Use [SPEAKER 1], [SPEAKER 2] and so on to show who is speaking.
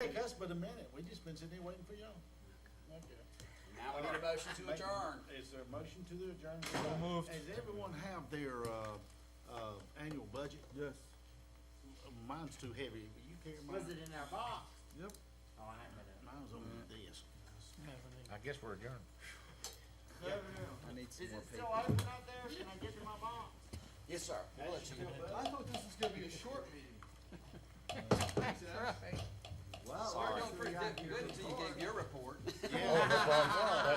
[SPEAKER 1] took us but a minute, we just been sitting here waiting for y'all. Okay.
[SPEAKER 2] Now we need a motion to adjourn.
[SPEAKER 1] Is there a motion to the adjournment?
[SPEAKER 3] moved.
[SPEAKER 1] Does everyone have their, uh, uh, annual budget?
[SPEAKER 3] Yes.
[SPEAKER 1] Mine's too heavy, will you carry
[SPEAKER 2] Was
[SPEAKER 1] mine?
[SPEAKER 2] it in our box?
[SPEAKER 3] Yep.
[SPEAKER 2] Oh, I haven't been up.
[SPEAKER 1] Mine's on this.
[SPEAKER 4] I guess we're adjourned.
[SPEAKER 1] I need some
[SPEAKER 2] Is
[SPEAKER 1] more
[SPEAKER 2] it
[SPEAKER 1] paper.
[SPEAKER 2] still open out there? Can I get to my box? Yes, sir. We'll let you.
[SPEAKER 3] I thought this was gonna be a short meeting.
[SPEAKER 2] Wow. Started going pretty good until you gave your report.
[SPEAKER 1] Oh, Yeah.